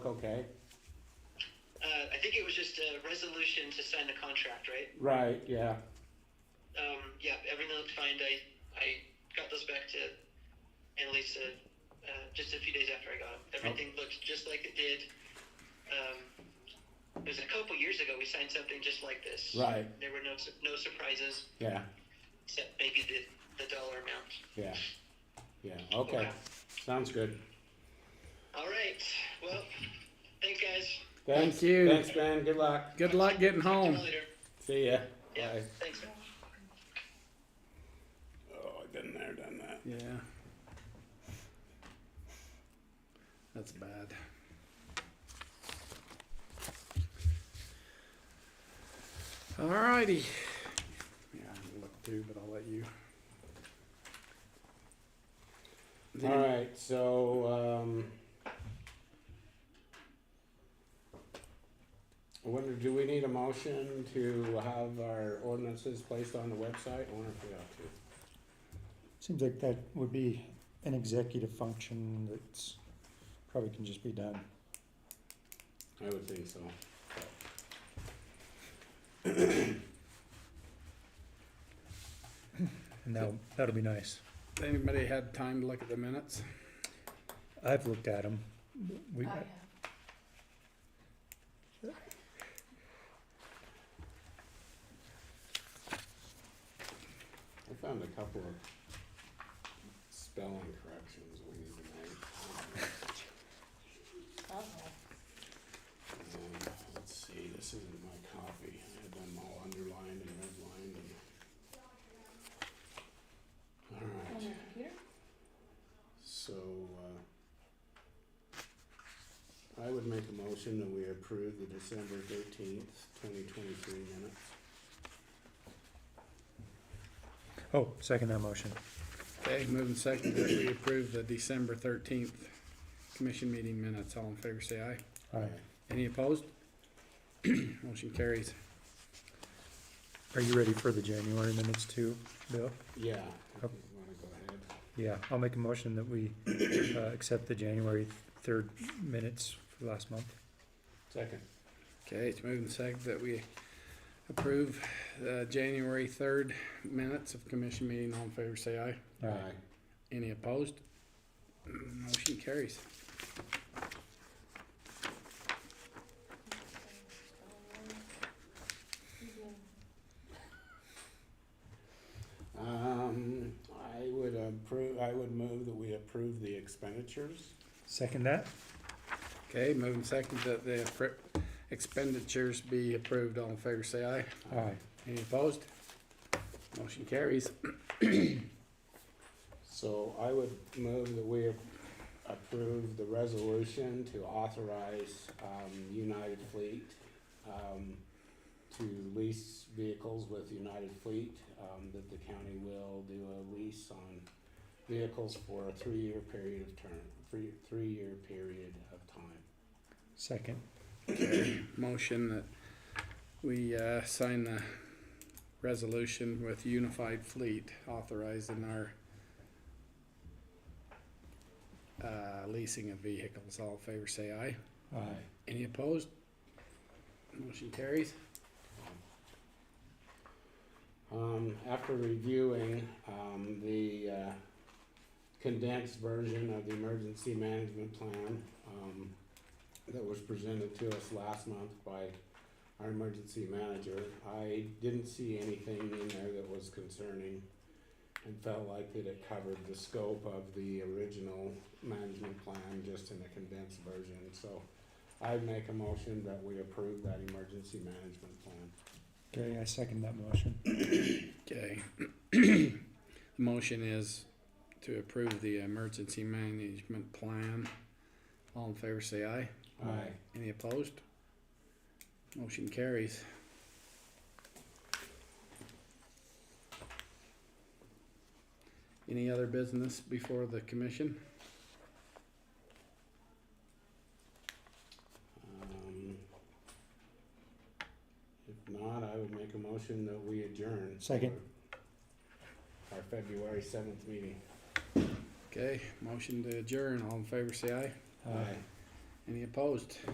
Okay, Uh, I think it was just a resolution to sign the contract, right? right, yeah, Um, yeah, everything looked fine. I, I got those back to Annalisa uh, just a few days after I got Oh. them. Everything looked just like it did. Um, it was a couple years ago we signed something just like this. right, There were no su- no surprises yeah, except maybe the, the dollar amount. yeah, yeah, okay, sounds good. All right. Well, thanks, guys. Thanks, Thank you. thanks, Ben, good luck, Good luck getting Talk to home. you later. see ya. Yeah. Bye. Thanks. Oh, I've been there, done that. Yeah. That's bad. Alrighty. Yeah, I'm gonna look too, but I'll let you. Did All you- right, so, um. I wonder, do we need a motion to have our ordinances placed on the website? I wonder if we ought to. Seems like that would be an executive function that's probably can just be done. I would think so. And that'll, that'll be nice. Anybody had time to look at the minutes? I've looked at them. We, I have. I found a couple of spelling corrections we need to make. Um, let's see, this isn't my copy. I had them all underlined and redlined and. On Alright, your computer? so, uh, I would make a motion that we approve the December thirteenth, twenty twenty-three minutes. oh, second that motion. Okay, moving second, that we approve the December thirteenth commission meeting minutes. All in favor, say aye. All right. Any opposed? Motion carries. Are you ready for the January minutes too, Bill? Yeah, if you Okay. wanna go ahead. Yeah, I'll make a motion that we, uh, accept the January third minutes for last month. Second. Okay, it's moving second that we approve the January third minutes of commission meeting. All in favor, say aye. Aye. Any opposed? Motion carries. Um, I would approve, I would move that we approve the expenditures. Second that? Okay, moving second that the appro- expenditures be approved. All in favor, say aye. All right. Any opposed? Motion carries. So I would move that we approve the resolution to authorize, um, United Fleet, um, to lease vehicles with United Fleet, um, that the county will do a lease on vehicles for a three-year period of term, three, three-year period of time. Second. Motion that we uh, sign the resolution with Unified Fleet authorizing our uh, leasing of vehicles. All in favor, say aye. Aye. Any opposed? Motion carries. Um, after reviewing, um, the, uh, condensed version of the emergency management plan, um, that was presented to us last month by our emergency manager, I didn't see anything in there that was concerning and felt like that it covered the scope of the original management plan, just in a condensed version, so I make a motion that we approve that emergency management plan. Okay, I second that motion. Okay. Motion is to approve the emergency management plan. All in favor, say aye. Aye. Any opposed? Motion carries. Any other business before the commission? Um, If not, I would make a motion that we adjourn. Second. for Our February seventh meeting. Okay, motion to adjourn, all in favor say aye. Uh, Any opposed?